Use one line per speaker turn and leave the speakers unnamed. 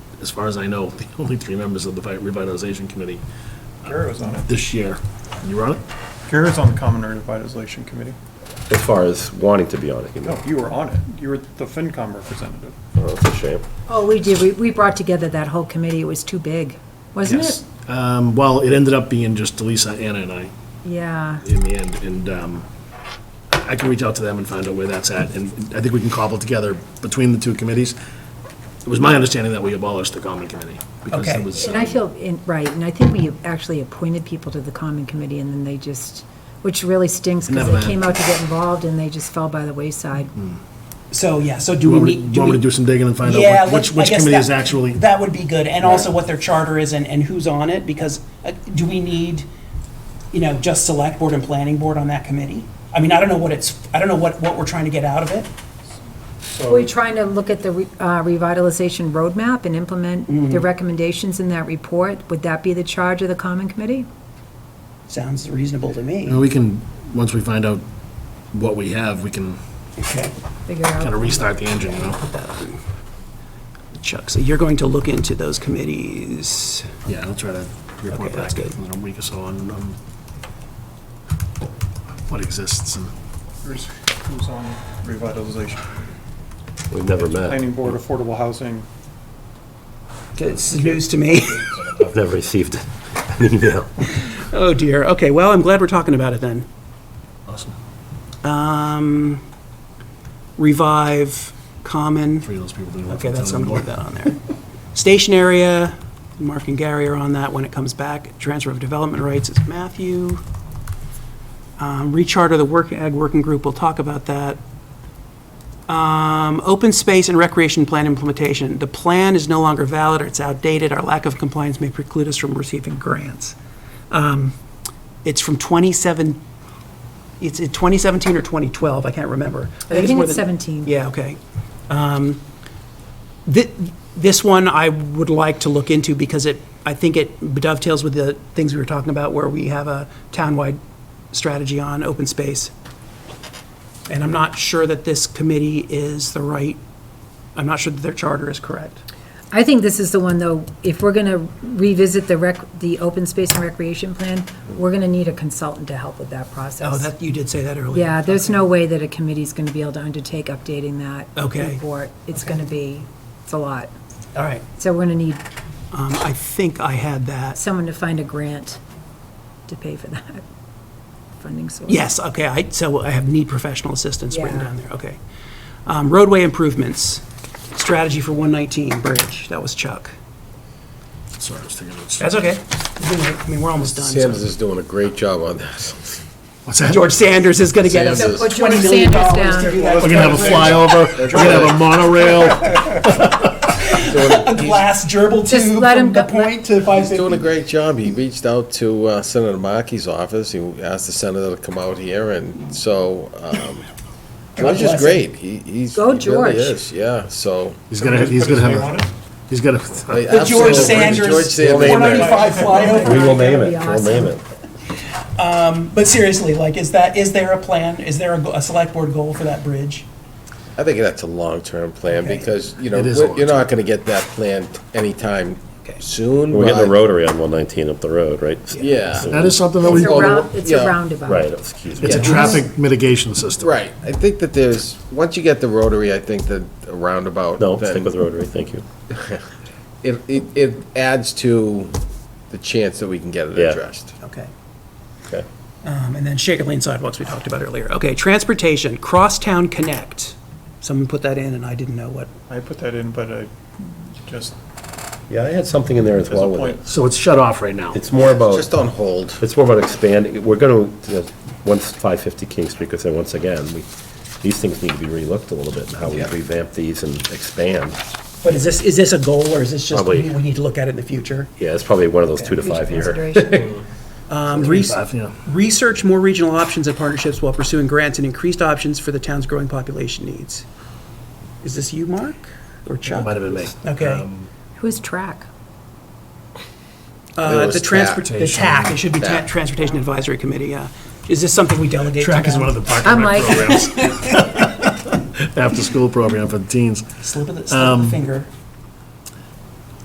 as far as I know, the only three members of the vi- revitalization committee
Kara was on it.
this year. You were on it?
Kara was on the Common Revitalization Committee.
As far as wanting to be on it, you
No,
know.
you were on it. You were the FinCom representative.
Oh, that's a shame.
Oh, we did, we, we brought together that whole committee, it was too big, wasn't
Yes.
it?
Um, well, it ended up being just Elisa, Anna, and I
Yeah,
in the end, and, um, I can reach out to them and find out where that's at, and I think we can cobble together between the two committees. It was my understanding that we abolished the common committee. because it
Okay.
was,
and I
um,
feel, in- right, and I think we actually appointed people to the common committee, and then they just, which really stinks, because
Never
they
mind.
came out to get involved, and they just fell by the wayside.
So, yeah, so do
You
we
want me
need?
you want me to do some digging and find out
Yeah,
what-
let's-
which, which
I guess
committee is
that-
actually?
That would be good, and also what their charter is and, and who's on it, because uh, do we need, you know, just select board and planning board on that committee? I mean, I don't know what it's, I don't know what, what we're trying to get out of it.
We're trying to look at the re- uh, revitalization roadmap and implement the recommendations in that report, would that be the charge of the common committee?
Sounds reasonable to
And
me.
we can, once we find out what we have, we can
Okay.
Figure
kind of
out,
restart the engine, you know?
Chuck, so you're going to look into those committees.
Yeah, I'll try to report
Okay,
back
that's good.
in a week or so on, um, what exists and.
Who's who's on revitalization?
We've never
Uh,
met.
Planning Board, Affordable Housing.
It's news to me.
I've never received an email.
Oh, dear. Okay, well, I'm glad we're talking about it then.
Awesome.
Revive, Common.
Three of those people didn't work.
Okay,
for
that's,
town
I'm gonna
anymore.
leave that on there. Station area, Mark and Gary are on that when it comes back. Transfer of development rights is Matthew. Um, Recharter the work, ag working group, we'll talk about that. Um, Open space and recreation plan implementation. The plan is no longer valid, or it's outdated, our lack of compliance may preclude us from receiving grants. Um, It's from 27, it's in 2017 or 2012, I can't remember.
I think
more
it's
than-
17.
yeah, okay. Um, thi- This one I would like to look into because it, I think it dovetails with the things we were talking about where we have a townwide strategy on open space. And I'm not sure that this committee is the right, I'm not sure that their charter is correct.
I think this is the one, though, if we're gonna revisit the rec, the open space and recreation plan, we're gonna need a consultant to help with that process.
Oh, that, you did say that earlier.
Yeah, there's no way that a committee's going to be able to undertake updating that
Okay.
report. It's going to be, it's a lot.
All right.
So we're going to need
Um, I think I had that.
someone to find a grant to pay for that funding source.
Yes, okay, I, so I have need professional assistance written
Yeah.
down there, okay. Um, Roadway improvements, strategy for 119 Bridge, that was Chuck.
Sorry, I was thinking it's.
That's okay. I mean, we're almost done. so-
Sanders is doing a great job on this.
What's that? We're
George Sanders is going to get us
Sanders.
Put George
$20 million
Sanders
to do
down.
that.
gonna have a flyover, we're gonna have a monorail.
Glass gerbil
Just
tube
let
from
him
the
go-
point to
He's doing a
550.
great job. He reached out to uh, Senator Markey's office. He asked the senator to come out here, and so um, George is
bless
great. He, he's
Go,
he really
George.
is. Yeah. So
He's gonna, he's gonna have,
Put his name on
a-
it?
he's gonna, I
I
The George
absolutely- George
Sanders
Sanders.
195 flyover.
We will name it,
That'd be
we'll name it.
But seriously, like, is that, is there a plan? Is there a, go- a select board goal for that bridge?
I think that's a long-term plan
Okay.
because you know
It is
we're- you're
long-term.
not going to get that plan anytime
Okay.
soon.
We're getting a
but-
rotary on 119 up the road, right?
Yeah.
So-
that is something that
It's
we,
a
Oh, the-
round, it's a
yeah.
roundabout.
Right, excuse me.
it's a
Yeah.
traffic mitigation system.
Right. I think that there's once you get the rotary, I think that a roundabout.
No,
then-
stick with rotary, thank you.
It, it, it adds to the chance that we can get it
Yeah.
addressed.
Okay.
Okay.
Um, And then Shaker Lane sidewalks we talked about earlier. Okay, transportation, Crosstown Connect. Someone put that in and I didn't know what.
I put that in, but I just,
Yeah, I had something in there as
as a
well with
point.
it.
So it's shut off right now.
It's more about.
Just on hold.
It's more about expanding, we're going to, you know, once 550 King Street, because then once again, we, these things need to be relooked a little bit, and how we
Yeah.
revamp these and expand.
But is this, is this a goal or is this just, we
Probably.
we need to look at it in the future?
Yeah, it's probably one of those two to five year.
Consideration.
Um, res-
Five, yeah.
Research more regional options and partnerships while pursuing grants and increased options for the town's growing population needs. Is this you, Mark, or Chuck?
Might have been me.
Okay.
Um,
Who's track?
Uh,
It was
The transport, the
TAC.
TAC, it should be Ta-
TAC.
Transportation Advisory Committee, yeah. Is this something we delegate to
Track is
them?
one of the park
I'm
and rec
like-
programs. After-school program for the teens. Um,
Slip of the, slip of the finger.